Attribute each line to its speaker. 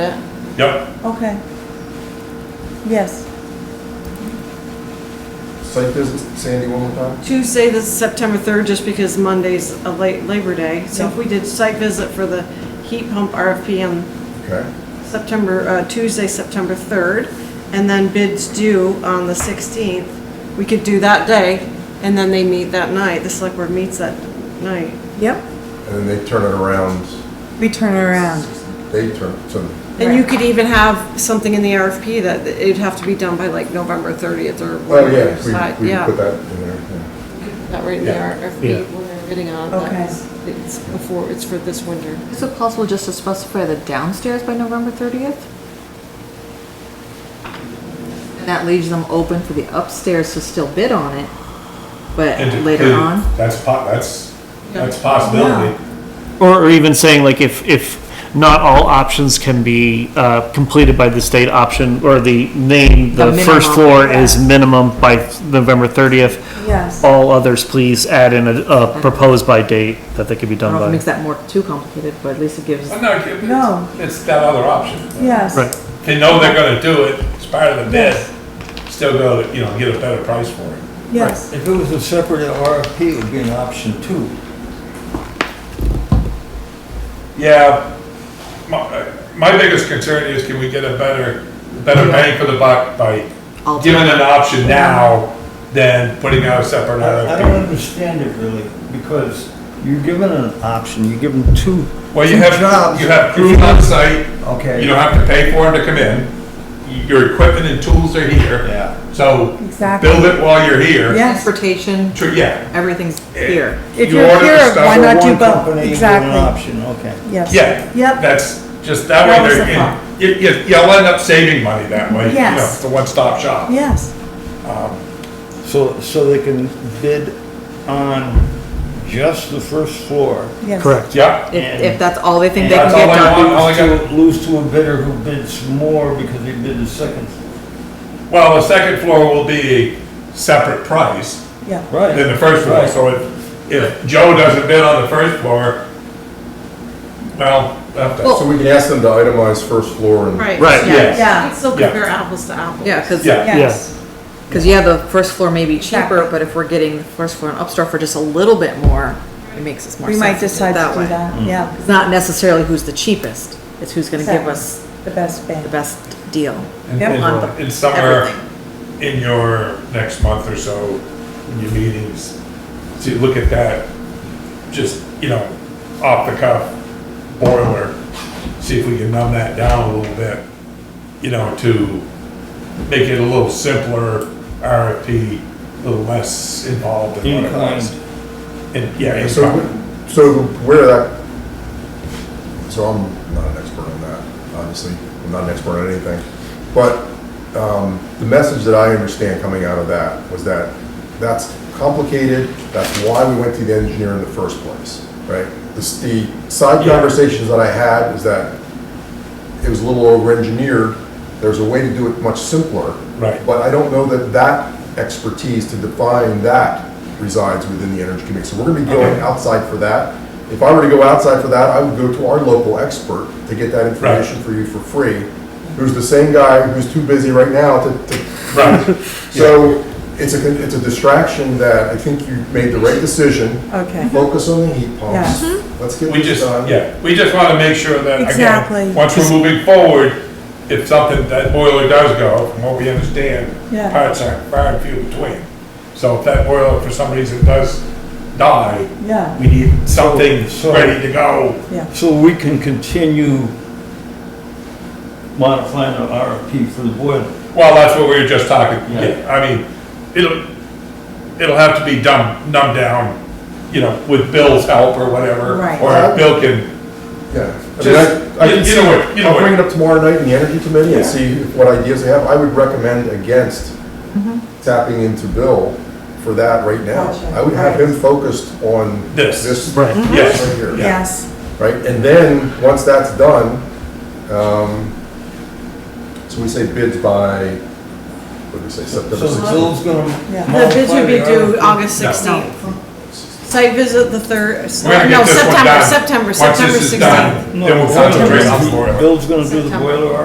Speaker 1: Yep,
Speaker 2: Okay. Yes.
Speaker 3: Site visit, Sandy, one more time?
Speaker 4: Tuesday, this is September 3rd, just because Monday's a late Labor Day. So if we did site visit for the heat pump RFP on
Speaker 3: Okay.
Speaker 4: September, uh, Tuesday, September 3rd, and then bids due on the 16th, we could do that day, and then they meet that night. The select board meets that night.
Speaker 2: Yep.
Speaker 3: And then they turn it around,
Speaker 2: We turn it around.
Speaker 3: they turn, so,
Speaker 4: And you
Speaker 2: Right.
Speaker 4: could even have something in the RFP that it'd have to be done by like November 30th or
Speaker 3: oh,
Speaker 4: whatever. you
Speaker 3: yeah,
Speaker 4: decide.
Speaker 3: we, we
Speaker 4: Yeah.
Speaker 3: put that in there, yeah.
Speaker 4: Not right in the
Speaker 1: Yeah.
Speaker 4: RFP, when we were bidding on it. that
Speaker 2: Okay.
Speaker 4: was- It's before, it's for this winter.
Speaker 5: Is it possible just to specify the downstairs by November 30th? And that leaves them open for the upstairs to still bid on it, but
Speaker 1: And to-
Speaker 5: later on?
Speaker 1: that's po, that's, that's
Speaker 4: Yeah.
Speaker 1: possibility.
Speaker 6: Or, or even saying like if, if not all options can be, uh, completed by this date option, or the name,
Speaker 5: The
Speaker 6: the first
Speaker 5: minimum,
Speaker 6: floor is minimum by November thirtieth.
Speaker 2: Yes.
Speaker 6: All others, please add in a, a proposed by date that they could be
Speaker 5: I don't know if it
Speaker 6: done
Speaker 5: makes
Speaker 6: by.
Speaker 5: that more too complicated, but at least it gives,
Speaker 1: I'm not, it's-
Speaker 2: No.
Speaker 1: it's that other option.
Speaker 2: Yes.
Speaker 6: Right,
Speaker 1: They know they're gonna do it, it's part of the bid, still go, you know, get a better price for it.
Speaker 2: Yes.
Speaker 7: If it was a separate RFP, it would be an option two.
Speaker 1: Yeah, my, uh, my biggest concern is can we get a better, better bang for the buck by
Speaker 5: I'll-
Speaker 1: giving an option now than putting out a separate
Speaker 7: I I don't
Speaker 1: RFP?
Speaker 7: understand it really, because you're given an option, you're given two,
Speaker 1: Well, you
Speaker 7: two
Speaker 1: have,
Speaker 7: jobs.
Speaker 1: you have crews on site, you don't
Speaker 7: Okay,
Speaker 1: have to pay for them to come in, your equipment and tools are here,
Speaker 7: yeah.
Speaker 1: so
Speaker 2: Exactly.
Speaker 1: build it while you're here.
Speaker 2: Yes.
Speaker 5: transportation,
Speaker 1: True, yeah,
Speaker 5: everything's here.
Speaker 2: If
Speaker 1: You
Speaker 2: you're
Speaker 1: order the
Speaker 2: here,
Speaker 1: stuff
Speaker 2: why
Speaker 1: for
Speaker 2: not do
Speaker 7: One
Speaker 2: both?
Speaker 7: company, you give an
Speaker 2: Exactly.
Speaker 7: option, okay.
Speaker 2: Yes.
Speaker 1: yeah.
Speaker 2: Yep.
Speaker 1: That's just, that
Speaker 2: That
Speaker 1: way
Speaker 2: was
Speaker 1: they're,
Speaker 2: the thought.
Speaker 1: in- you, you, you'll end up saving money that way, you know,
Speaker 2: Yes.
Speaker 1: it's a one-stop shop.
Speaker 2: Yes.
Speaker 7: So, so they can bid on just the first floor.
Speaker 2: Yes.
Speaker 6: correct.
Speaker 1: Yeah,
Speaker 5: If, if that's all they think they can
Speaker 1: That's
Speaker 5: get
Speaker 1: all I
Speaker 5: done.
Speaker 1: want. all I
Speaker 7: Lose to- Lose to a bidder who bids more because they bid the second. floor.
Speaker 1: well, the second floor will be a separate price,
Speaker 2: Yeah.
Speaker 7: Right.
Speaker 1: than the first floor, so if, if Joe doesn't bid on the first floor, well, that's,
Speaker 3: So we can ask them to itemize first floor and.
Speaker 6: Right,
Speaker 1: yes.
Speaker 2: Yeah.
Speaker 4: It's still
Speaker 1: Yeah.
Speaker 4: compare apples to apples.
Speaker 5: Yeah, because,
Speaker 1: Yeah.
Speaker 2: Yes.
Speaker 5: because yeah, the first floor may be cheaper,
Speaker 2: Exactly.
Speaker 5: but if we're getting the first floor and upstairs for just a little bit more, it makes us more
Speaker 2: We
Speaker 5: sense.
Speaker 2: might
Speaker 5: to do it
Speaker 2: decide to do
Speaker 5: way.
Speaker 2: that. Mm. Yeah.
Speaker 5: It's not necessarily who's the cheapest, it's who's gonna give
Speaker 2: Exactly.
Speaker 5: us
Speaker 2: The best
Speaker 5: the
Speaker 2: band.
Speaker 5: best deal.
Speaker 1: And-
Speaker 2: Yep.
Speaker 5: On the-
Speaker 1: And and somewhere
Speaker 5: everything.
Speaker 1: in your next month or so, in your meetings, to look at that, just, you know, off the cuff boiler, see if we can numb that down a little bit, you know, to make it a little simpler, RFP, a little less involved in what it was. And, yeah, in
Speaker 3: So,
Speaker 1: kind.
Speaker 3: so where that, so I'm not an expert on that, obviously, I'm not an expert on anything. But, um, the message that I understand coming out of that was that that's complicated, that's why we went to the engineer in the first place, right? The, the side
Speaker 1: Yeah.
Speaker 3: conversations that I had is that it was a little over-engineered, there's a way to do it much simpler.
Speaker 1: Right.
Speaker 3: But I don't know that that expertise to define that resides within the Energy Committee. So we're gonna be going
Speaker 1: Okay.
Speaker 3: outside for that. If I were to go outside for that, I would go to our local expert to get that information for you for free, who's the same guy who's too busy right now to, to
Speaker 1: Right,
Speaker 3: so it's a, it's a distraction that I think you made the right decision.
Speaker 2: Okay.
Speaker 3: Focus on the heat pumps.
Speaker 2: Yeah.
Speaker 3: Let's get
Speaker 1: We
Speaker 3: this
Speaker 1: just,
Speaker 7: uh,
Speaker 3: done.
Speaker 1: yeah, we just want to make sure that,
Speaker 2: Exactly.
Speaker 1: again, once we're moving forward, if something, that boiler does go, from what we understand,
Speaker 2: Yeah.
Speaker 1: parts are far and few between. So if that boiler for some reason does die,
Speaker 2: Yeah.
Speaker 1: we need something
Speaker 7: So- so-
Speaker 1: ready to go.
Speaker 2: Yeah.
Speaker 7: So we can continue modifying the RFP for the boiler.
Speaker 1: Well, that's what we were just talking,
Speaker 7: Yeah.
Speaker 1: yeah, I mean, it'll, it'll have to be dumbed, numbed down, you know, with Bill's help or whatever.
Speaker 2: Right.
Speaker 1: Or Bill can,
Speaker 3: Yeah. I mean,
Speaker 1: just,
Speaker 3: I- I can
Speaker 1: you know what, you know
Speaker 3: I'll bring
Speaker 1: what,
Speaker 3: it up tomorrow night in the energy committee
Speaker 1: Yeah.
Speaker 3: and see what ideas they have. I would recommend against tapping into Bill for that right now.
Speaker 2: Gotcha.
Speaker 3: I would have him focused on
Speaker 1: This.
Speaker 3: this.
Speaker 6: Right.
Speaker 1: Yes.
Speaker 3: Right here.
Speaker 2: Yes.
Speaker 3: Right, and then, once that's done, um, so we say bids by, what do we say,
Speaker 7: So
Speaker 3: September
Speaker 7: the
Speaker 3: 16th?
Speaker 7: bill's gonna.
Speaker 2: Yeah.
Speaker 4: The bids
Speaker 7: modify
Speaker 4: would be
Speaker 7: the
Speaker 4: due
Speaker 7: RFP.
Speaker 4: August
Speaker 1: No.
Speaker 4: 16th. Site visit the third,
Speaker 1: We're
Speaker 4: no,
Speaker 1: gonna get this one
Speaker 4: September,
Speaker 1: done.
Speaker 4: September,
Speaker 1: Once
Speaker 4: September
Speaker 1: this is
Speaker 4: 16th.
Speaker 1: done, Then we'll concentrate on the boiler.
Speaker 7: Bill's gonna do the boiler